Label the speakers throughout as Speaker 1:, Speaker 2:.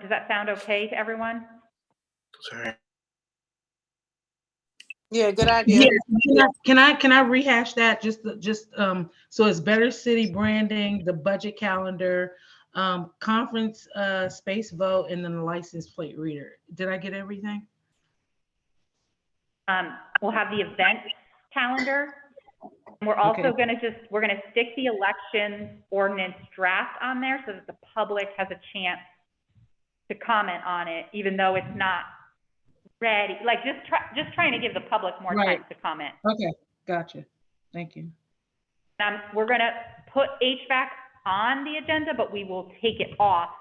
Speaker 1: Does that sound okay to everyone?
Speaker 2: Sorry.
Speaker 3: Yeah, good idea.
Speaker 4: Yes, can I- can I, can I rehash that just, just, um, so it's better city branding, the budget calendar, um, conference, uh, space vote, and then the license plate reader. Did I get everything?
Speaker 1: Um, we'll have the event calendar. We're also
Speaker 4: Okay.
Speaker 1: gonna just, we're gonna stick the election ordinance draft on there so that the public has a chance to comment on it, even though it's not ready, like, just try, just trying to give the public more time
Speaker 4: Right.
Speaker 1: to comment.
Speaker 4: Okay, gotcha. Thank you.
Speaker 1: Um, we're gonna put HVAC on the agenda, but we will take it off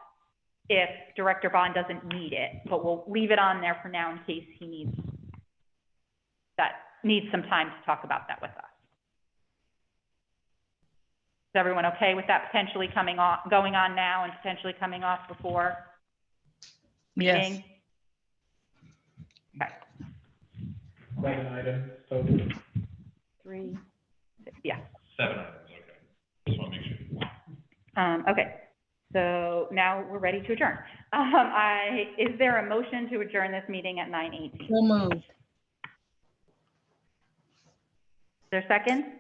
Speaker 1: if Director Bond doesn't need it, but we'll leave it on there for now in case he needs that, needs some time to talk about that with us. Is everyone okay with that potentially coming off, going on now and potentially coming off before
Speaker 4: Yes,
Speaker 1: meeting?
Speaker 2: Like an item, so
Speaker 1: Three, six, yeah.
Speaker 2: seven items, okay. Just want to make sure.
Speaker 1: Um, okay, so now we're ready to adjourn. Um, I, is there a motion to adjourn this meeting at nine eighteen?
Speaker 4: so moved.
Speaker 1: Is there a second?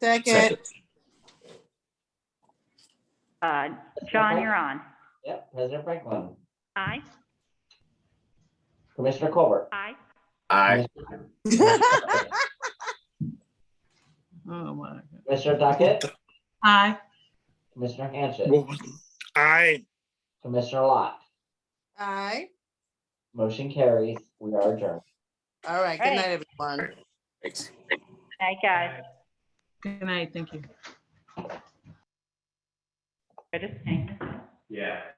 Speaker 3: Second,
Speaker 1: Uh, John, you're on.
Speaker 5: Yep, President Franklin,
Speaker 1: Aye,
Speaker 5: Commissioner Colbert.
Speaker 1: aye.
Speaker 2: Aye.
Speaker 4: Oh, my. God.
Speaker 5: Commissioner Duckett,
Speaker 4: Aye.
Speaker 5: Commissioner Hanchett,
Speaker 2: Aye.
Speaker 5: Commissioner Lott.
Speaker 3: aye.
Speaker 5: Motion carries. We are adjourned.
Speaker 3: All right, good
Speaker 1: Hey.
Speaker 3: night, everyone.
Speaker 1: Aye, guys.
Speaker 4: Good night, thank you.
Speaker 1: I just hang this up.
Speaker 2: Yeah.